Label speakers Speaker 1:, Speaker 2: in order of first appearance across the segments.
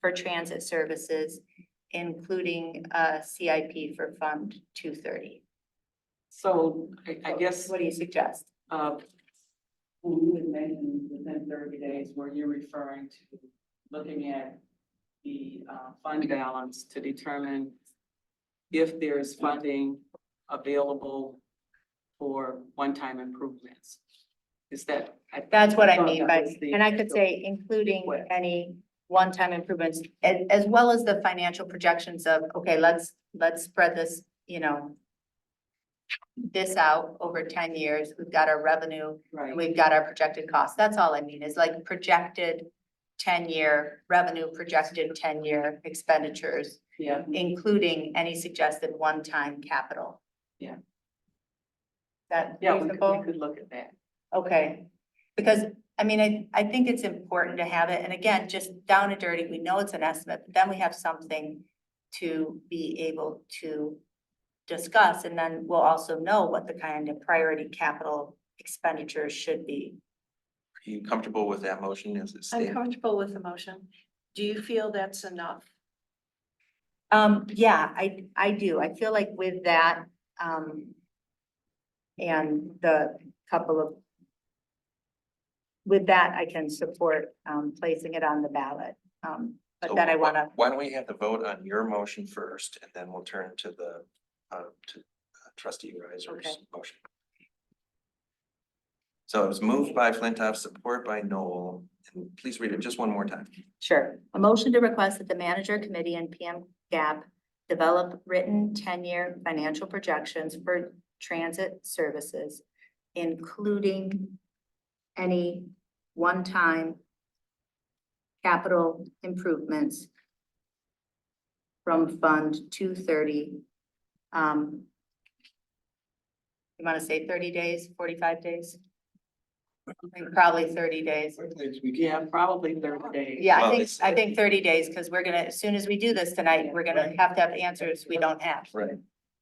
Speaker 1: for transit services, including uh CIP for Fund two thirty.
Speaker 2: So I, I guess,
Speaker 1: What do you suggest?
Speaker 2: uh, when you had mentioned within thirty days, were you referring to looking at the, uh, fund balance to determine if there is funding available for one-time improvements? Is that? I-
Speaker 1: That's what I
Speaker 2: thought
Speaker 1: mean
Speaker 2: that
Speaker 1: by,
Speaker 2: was the
Speaker 1: and I could
Speaker 2: initial-
Speaker 1: say including
Speaker 2: request.
Speaker 1: any one-time improvements as, as well as the financial projections of, okay, let's, let's spread this, you know, this out over ten years. We've got our revenue and
Speaker 2: Right,
Speaker 1: we've got our projected costs. That's all I mean is like projected ten-year revenue, projected ten-year expenditures,
Speaker 2: yeah,
Speaker 1: including any suggested one-time capital.
Speaker 2: Yeah.
Speaker 1: That
Speaker 2: yeah, we could,
Speaker 1: reasonable?
Speaker 2: we could look at that.
Speaker 1: Okay, because, I mean, I, I think it's important to have it, and again, just down and dirty, we know it's an estimate, but then we have something to be able to discuss, and then we'll also know what the kind of priority capital expenditures should be.
Speaker 3: Are you comfortable with that motion as it
Speaker 4: I'm
Speaker 3: stands?
Speaker 4: comfortable with the motion. Do you feel that's enough?
Speaker 1: Um, yeah, I, I do, I feel like with that, um, and the couple of with that, I can support, um, placing it on the ballot, um, but
Speaker 3: So
Speaker 1: then I
Speaker 3: wh-
Speaker 1: wanna
Speaker 3: Why don't we have the vote on your motion first and then we'll turn to the, uh, to uh, trustee Riser's
Speaker 1: Okay.
Speaker 3: motion. So it was moved by Flintoff, support by Noel, and please read it just one more time.
Speaker 1: Sure. A motion to request that the manager committee and PM GAP develop written ten-year financial projections for transit services, including any one-time capital improvements from Fund two thirty. Um, you want to say thirty days, forty-five days? I think Probably thirty days.
Speaker 2: Yeah, probably thirty days.
Speaker 1: Yeah, I
Speaker 3: Well,
Speaker 1: think,
Speaker 3: it's-
Speaker 1: I think thirty days, because we're gonna, as soon as we do this tonight, we're gonna have to have answers we don't have.
Speaker 3: Right.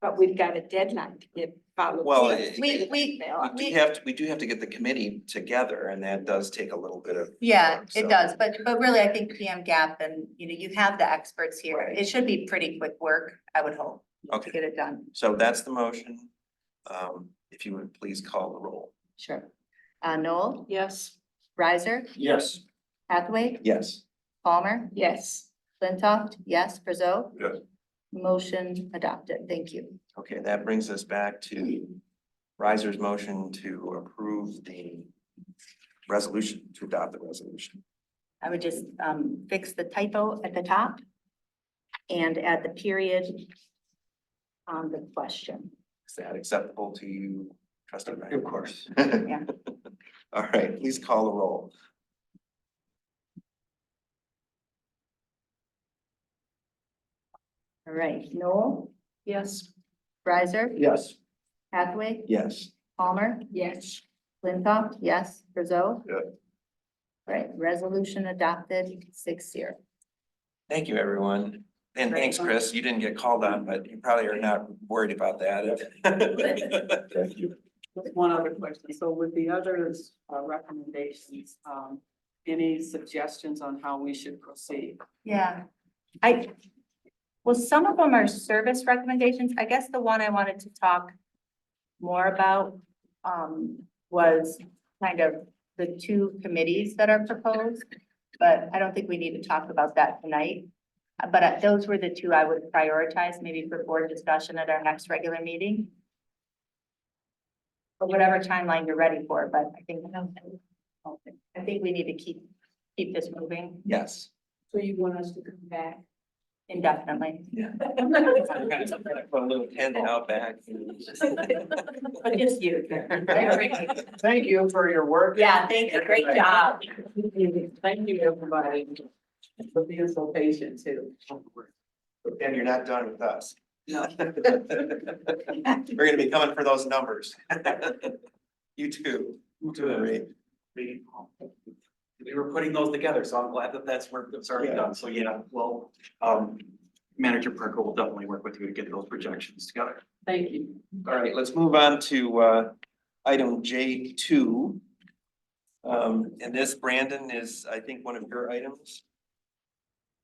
Speaker 4: But we've got a deadline to get followed.
Speaker 3: Well, it-
Speaker 1: We, Uh, we,
Speaker 3: We do have, to- we do have to get the committee together and that does take a little bit of.
Speaker 1: yeah,
Speaker 3: work,
Speaker 1: it
Speaker 3: so-
Speaker 1: does, but, but really, I think PM gap and, you know, you have the experts here.
Speaker 3: Right.
Speaker 1: It should be pretty quick work, I would hope, to
Speaker 3: Okay,
Speaker 1: get it done.
Speaker 3: so that's the motion. Um, if you would please call the roll.
Speaker 1: Sure. Uh, Noel,
Speaker 4: Yes.
Speaker 1: Riser,
Speaker 3: Yes.
Speaker 1: Hathaway,
Speaker 3: Yes.
Speaker 1: Palmer,
Speaker 4: Yes.
Speaker 1: Flintoff, yes, Brazo?
Speaker 3: Yes.
Speaker 1: Motion adopted, thank you.
Speaker 3: Okay, that brings us back to Riser's motion to approve the resolution, to adopt the resolution.
Speaker 1: I would just um fix the typo at the top and add the period on the question.
Speaker 3: Is that acceptable to you, trustee Ryan?
Speaker 5: Of course.
Speaker 3: Yeah. All right, please call the roll.
Speaker 1: All right, Noel,
Speaker 4: Yes.
Speaker 1: Riser,
Speaker 5: Yes.
Speaker 1: Hathaway,
Speaker 3: Yes.
Speaker 1: Palmer,
Speaker 4: Yes.
Speaker 1: Flintoff, yes, Brazo?
Speaker 3: Yeah.
Speaker 1: Right, resolution adopted six zero.
Speaker 3: Thank you, everyone. And thanks, Chris. You didn't get called on, but you probably are not worried about that. Thank you.
Speaker 2: One other question. So with the others, uh, recommendations, um, any suggestions on how we should proceed?
Speaker 1: Yeah, I, well, some of them are service recommendations. I guess the one I wanted to talk more about um was kind of the two committees that are proposed. But I don't think we need to talk about that tonight. Uh, But uh, those were the two I would prioritize maybe for board discussion at our next regular meeting. Or whatever timeline you're ready for, but I think I think we need to keep keep this moving
Speaker 3: Yes.
Speaker 4: So you want us to come back?
Speaker 1: indefinitely.
Speaker 3: Put a little tent out back.
Speaker 1: But just you.
Speaker 2: Thank you for your work.
Speaker 1: Yeah, thank you. Great job.
Speaker 2: Thank you, everybody, for being so patient too.
Speaker 3: And you're not done with us.
Speaker 2: No.
Speaker 3: We're gonna be coming for those numbers. You too. You
Speaker 5: too. We, we were putting those together, so I'm glad that that's work that's already done. So yeah, well, um, Manager Perko will definitely work with you to get those projections together.
Speaker 2: Thank you.
Speaker 3: All right, let's move on to uh item J two. Um, and this, Brandon, is, I think, one of your items.